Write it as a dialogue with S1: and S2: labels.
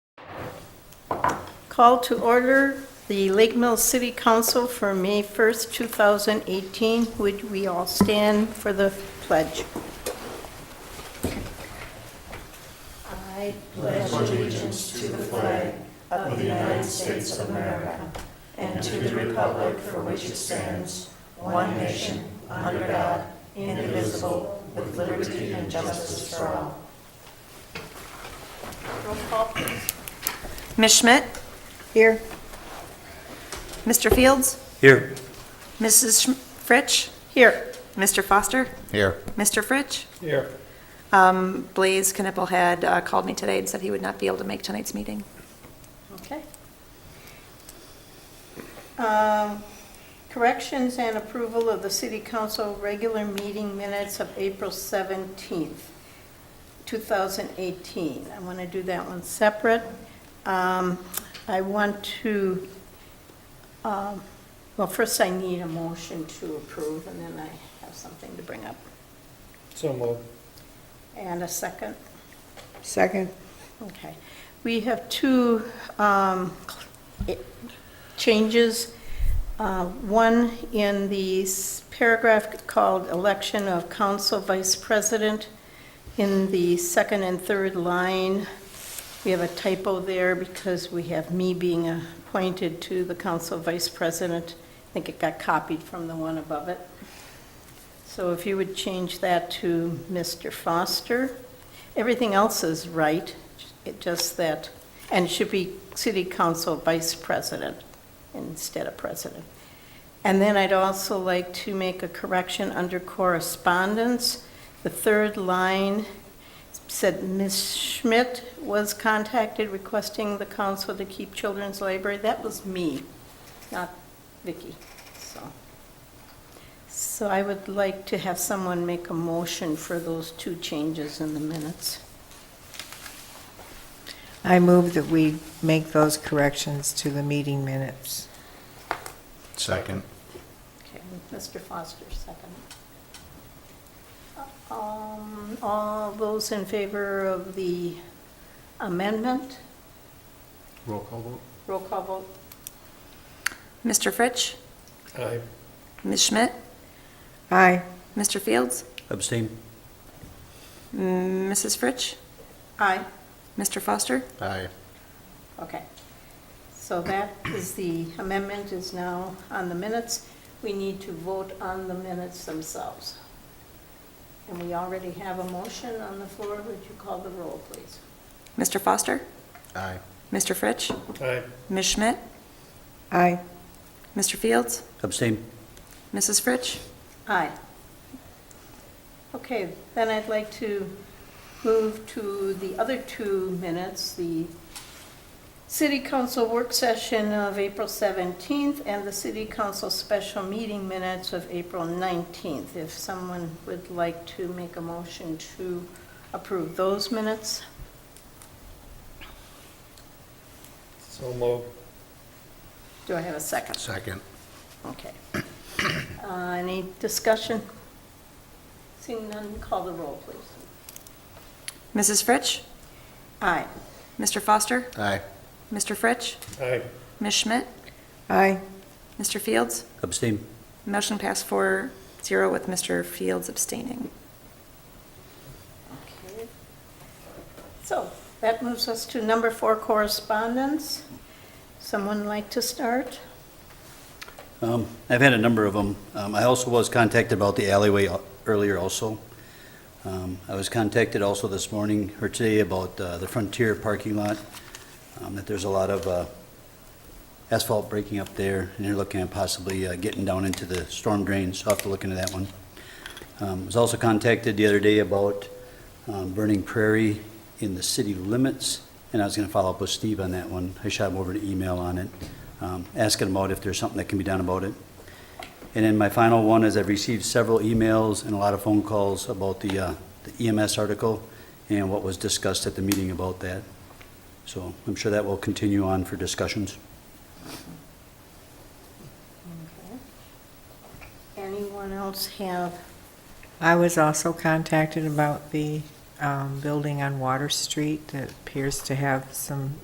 S1: call to order the Lake Mills City Council for May 1st, 2018. Would we all stand for the pledge? Roll call, please.
S2: Ms. Schmidt?
S1: Here.
S2: Mr. Fields?
S3: Here.
S2: Mrs. Schm- Fritsch?
S1: Here.
S2: Mr. Foster?
S3: Here.
S2: Mr. Fritsch?
S3: Here.
S2: Um, Blaze Knipple had uh, called me today and said he would not be able to make tonight's meeting.
S1: Okay. Um, Corrections and approval of the City Council regular meeting minutes of April 17th, 2018. I want to do that one separate. Um, I want to, um, well, first I need a motion to approve, and then I have something to bring up.
S3: So moved.
S1: And a second.
S4: Second.
S1: Okay. We have two um, eh, changes. Uh, One in the s- paragraph called election of council vice president. In the second and third line, we have a typo there because we have me being appointed to the council vice president. I think it got copied from the one above it. So if you would change that to Mr. Foster. Everything else is right, it just that, and should be city council vice president instead of president. And then I'd also like to make a correction under correspondence. The third line said Ms. Schmidt was contacted requesting the council to keep children's library. That was me, not Vicky, so. So I would like to have someone make a motion for those two changes in the minutes.
S4: I move that we make those corrections to the meeting minutes.
S3: Second.
S1: Okay, Mr. Foster, second. Um, All those in favor of the amendment?
S3: Roll call vote?
S1: Roll call vote.
S2: Mr. Fritsch?
S3: Aye.
S2: Ms. Schmidt?
S4: Aye.
S2: Mr. Fields?
S3: Abstain?
S2: Mm, Mrs. Fritsch?
S1: Aye.
S2: Mr. Foster?
S3: Aye.
S1: Okay. So that is the amendment is now on the minutes. We need to vote on the minutes themselves. And we already have a motion on the floor. Would you call the roll, please?
S2: Mr. Foster?
S3: Aye.
S2: Mr. Fritsch?
S3: Aye.
S2: Ms. Schmidt?
S4: Aye.
S2: Mr. Fields?
S3: Abstain?
S2: Mrs. Fritsch?
S1: Aye. Okay, then I'd like to move to the other two minutes, the City Council work session of April 17th and the City Council special meeting minutes of April 19th. If someone would like to make a motion to approve those minutes,
S3: So moved.
S1: do I have a second?
S3: Second.
S1: Okay. Uh, Any discussion? Seeing none, call the roll, please.
S2: Mrs. Fritsch?
S1: Aye.
S2: Mr. Foster?
S3: Aye.
S2: Mr. Fritsch?
S3: Aye.
S2: Ms. Schmidt?
S4: Aye.
S2: Mr. Fields?
S3: Abstain?
S2: Motion passed four zero with Mr. Fields abstaining.
S1: Okay. So that moves us to number four, correspondence. Someone like to start?
S5: Um, I've had a number of them. Um, I also was contacted about the alleyway al- earlier also. Um, I was contacted also this morning, or today, about uh, the Frontier parking lot, um, that there's a lot of uh, asphalt breaking up there, and they're looking at possibly uh, getting down into the storm drains. I'll have to look into that one. Um, Was also contacted the other day about um, Burning Prairie in the city limits, and I was going to follow up with Steve on that one. I shot him over an email on it, um, asking him about if there's something that can be done about it. And then my final one is I've received several emails and a lot of phone calls about the uh, the EMS article and what was discussed at the meeting about that. So I'm sure that will continue on for discussions.
S1: Anyone else have?
S4: I was also contacted about the um, building on Water Street that appears to have some